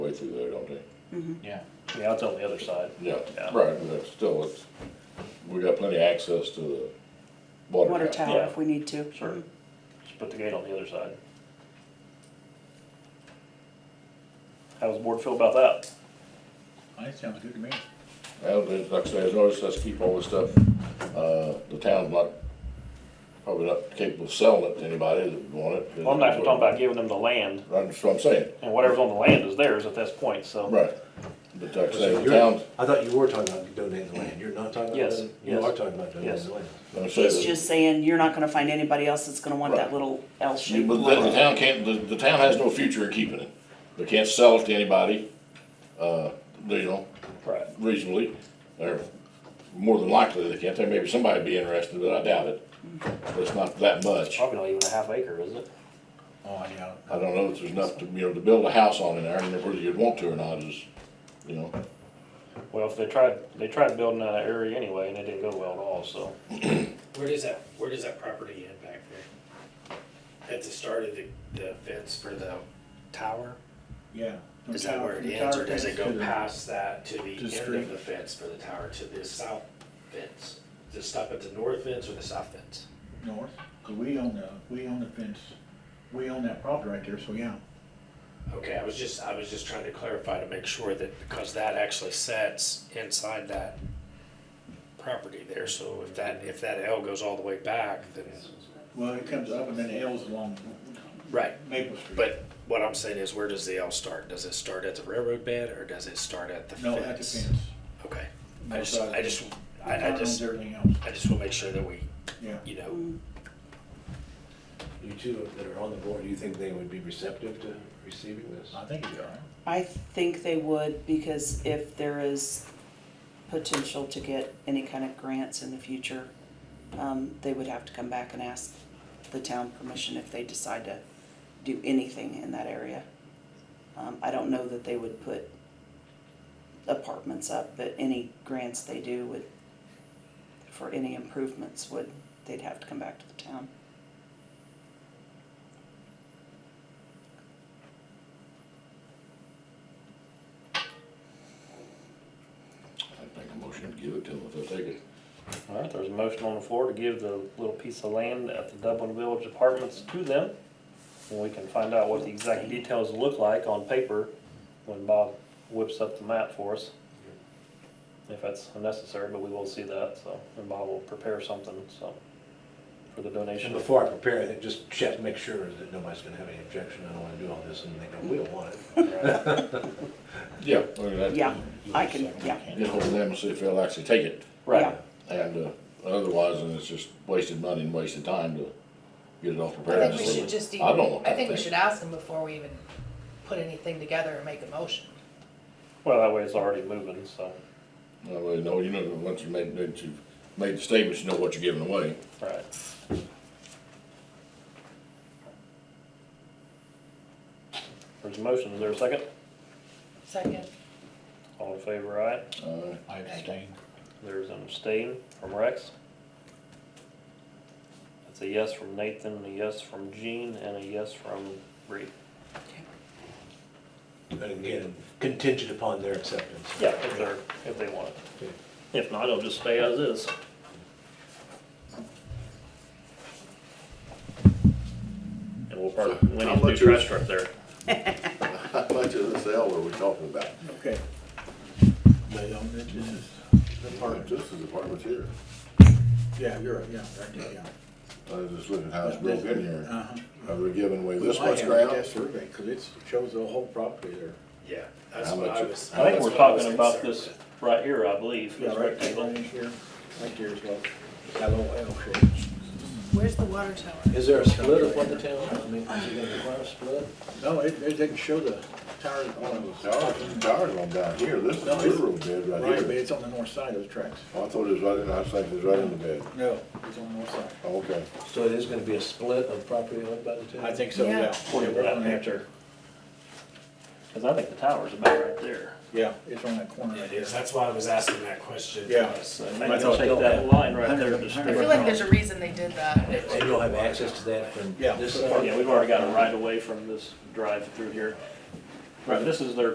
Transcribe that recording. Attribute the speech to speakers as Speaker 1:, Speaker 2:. Speaker 1: think.
Speaker 2: Yeah, yeah, it's on the other side.
Speaker 1: Yeah,
Speaker 2: Yeah.
Speaker 1: right, but it's still, it's, we got plenty of access to the
Speaker 3: water
Speaker 1: water tower.
Speaker 3: tower if we need to.
Speaker 2: Sure. Just put the gate on the other side. How does the board feel about that?
Speaker 4: Oh, That sounds good to me.
Speaker 1: Well, there's- like I say, as long as let's keep all this stuff, uh, the town's not, probably not capable of selling it to anybody that would want it.
Speaker 2: Well, I'm not even talking about giving them the land,
Speaker 1: That's what I'm saying,
Speaker 2: and whatever's on the land is theirs at this point, so.
Speaker 1: right, but like I
Speaker 5: So
Speaker 1: say, the
Speaker 5: you're-
Speaker 1: town's,
Speaker 5: I thought you were talking about donating the land, you're not talking about.
Speaker 2: Yes,
Speaker 5: donating- You
Speaker 2: yes,
Speaker 5: are talking about
Speaker 2: yes.
Speaker 5: donating the land.
Speaker 1: let me say
Speaker 3: He's
Speaker 1: this.
Speaker 3: just saying, you're not gonna find anybody else that's gonna want that
Speaker 1: Right.
Speaker 3: little L
Speaker 1: You-
Speaker 3: shape.
Speaker 1: But the, the town can't, the, the town has no future in keeping it, they can't sell it to anybody, uh, you know,
Speaker 2: Right.
Speaker 1: reasonably, or more than likely they can't, maybe somebody would be interested, but I doubt it. It's not that much,
Speaker 2: Probably not even a half acre, is it?
Speaker 4: Oh, yeah.
Speaker 1: I don't know if there's enough to, you know, to build a house on in there, and whether you'd want to or not is, you know,
Speaker 2: Well, if they tried, they tried building out that area anyway, and it didn't go well at all, so.
Speaker 6: Where does that, where does that property end back there? At the start of the, the fence for the tower?
Speaker 4: Yeah. From
Speaker 6: Is
Speaker 4: tower-
Speaker 6: that where it
Speaker 4: from
Speaker 6: ends,
Speaker 4: tower
Speaker 6: or does it
Speaker 4: fence
Speaker 6: go
Speaker 4: to the-
Speaker 6: past that to the
Speaker 4: to the
Speaker 6: end
Speaker 4: street.
Speaker 6: of the fence for the tower, to the south fence? Does it stop at the north fence or the south fence?
Speaker 4: North, 'cause we own the, we own the fence, we own that property right there, so yeah.
Speaker 6: Okay, I was just, I was just trying to clarify to make sure that, because that actually sets inside that property there, so if that, if that L goes all the way back, then.
Speaker 4: Well, it comes up and then it L's along
Speaker 6: Right,
Speaker 4: Maple Street.
Speaker 6: But what I'm saying is, where does the L start? Does it start at the railroad bed, or does it start at the
Speaker 4: No,
Speaker 6: fence?
Speaker 4: at the fence.
Speaker 6: Okay, I
Speaker 4: No
Speaker 6: just,
Speaker 4: side.
Speaker 6: I just,
Speaker 4: The
Speaker 6: I, I
Speaker 4: town owns
Speaker 6: just,
Speaker 4: everything else,
Speaker 6: I just wanna make sure that we,
Speaker 4: yeah.
Speaker 6: you
Speaker 3: Mm.
Speaker 6: know,
Speaker 5: You two that are on the board, do you think they would be receptive to receiving this?
Speaker 4: I think it's all right.
Speaker 3: I think they would, because if there is potential to get any kind of grants in the future, um, they would have to come back and ask the town permission if they decide to do anything in that area. Um, I don't know that they would put apartments up, but any grants they do would, for any improvements would, they'd have to come back to the town.
Speaker 1: I'd make a motion to give it to them if they'll take it.
Speaker 2: All right, there's a motion on the floor to give the little piece of land at the Dublin Village Apartments to them. And we can find out what the exact details look like on paper when Bob whips up the map for us. If that's necessary, but we will see that, so, and Bob will prepare something, so, for the donation.
Speaker 5: And before I prepare anything, just check, make sure that nobody's gonna have any objection, I don't wanna do all this and they go, we don't want it.
Speaker 2: Right.
Speaker 1: Yeah. I mean, that-
Speaker 3: Yeah, I can, yeah,
Speaker 1: Get hold of them and see if they'll actually take it,
Speaker 2: Right,
Speaker 1: and, uh, otherwise, then it's just wasted money and wasted time to get it all prepared.
Speaker 7: I think we should just
Speaker 1: I don't know.
Speaker 7: even, I think we should ask them before we even put anything together and make a motion.
Speaker 2: well, that way it's already moving, so,
Speaker 1: No, well, no, you know, once you made, once you've made the statements, you know what you're giving away.
Speaker 2: right. There's a motion, is there a second?
Speaker 7: Second,
Speaker 2: All in favor, aye?
Speaker 1: Uh,
Speaker 4: I abstain.
Speaker 2: There's an abstain from Rex. That's a yes from Nathan, a yes from Gene, and a yes from Reed.
Speaker 5: And again, contingent upon their acceptance.
Speaker 2: Yeah, if they're, if they want it.
Speaker 5: Okay.
Speaker 2: If not, it'll just stay as is. And we'll park Winnie's new trash truck there.
Speaker 1: How much of this L are we talking about?
Speaker 4: Okay. They own it, this is the park.
Speaker 1: This is apartments here.
Speaker 4: Yeah, you're right, yeah, right there, yeah.
Speaker 1: I was just looking at how it's broken in here.
Speaker 4: Uh-huh.
Speaker 1: Are we giving away this
Speaker 4: I
Speaker 1: much
Speaker 4: have
Speaker 1: ground?
Speaker 4: that survey, cause it shows the whole property there.
Speaker 6: yeah, that's
Speaker 1: How
Speaker 6: what
Speaker 1: much
Speaker 6: I
Speaker 1: is-
Speaker 6: was.
Speaker 2: I think
Speaker 6: that's
Speaker 2: we're
Speaker 6: what I was
Speaker 2: talking about
Speaker 6: concerned
Speaker 2: this
Speaker 6: with.
Speaker 2: right here, I believe,
Speaker 4: Yeah,
Speaker 2: this
Speaker 4: right there,
Speaker 2: rectangle.
Speaker 4: right here, right there as well. That little L shape.
Speaker 7: where's the water tower?
Speaker 5: Is there a split of what the town, I mean, is it gonna require a split?
Speaker 4: No, it, it doesn't show the tires on the.
Speaker 1: Towers, towers on down here, this is
Speaker 4: No,
Speaker 1: the
Speaker 4: it's-
Speaker 1: railroad bed
Speaker 4: Right,
Speaker 1: right
Speaker 4: but
Speaker 1: here.
Speaker 4: it's on the north side of the tracks.
Speaker 1: Oh, I thought it was right in, I was thinking it was right in the bed.
Speaker 4: No, it's on the north side.
Speaker 1: Oh, Okay.
Speaker 5: So it is gonna be a split of property owned by the town?
Speaker 4: I think so,
Speaker 7: Yeah.
Speaker 4: yeah. Yeah, we're on that there.
Speaker 2: Cause I think the tower's about right there.
Speaker 4: Yeah, it's on that corner
Speaker 6: Yeah,
Speaker 4: right
Speaker 6: it
Speaker 4: there.
Speaker 6: is. That's why I was asking that question.
Speaker 4: Yeah.
Speaker 6: because-
Speaker 2: I
Speaker 4: I
Speaker 2: think they'll
Speaker 4: thought
Speaker 2: take
Speaker 4: so.
Speaker 2: that line right there and just
Speaker 4: I
Speaker 7: I
Speaker 2: stick
Speaker 7: feel
Speaker 2: it
Speaker 7: like there's a reason they did that.
Speaker 5: And you'll have access to that from
Speaker 4: Yeah.
Speaker 5: this
Speaker 4: Yeah,
Speaker 5: side?
Speaker 2: Yeah, we've already got a right away from this drive through here. Right, this is their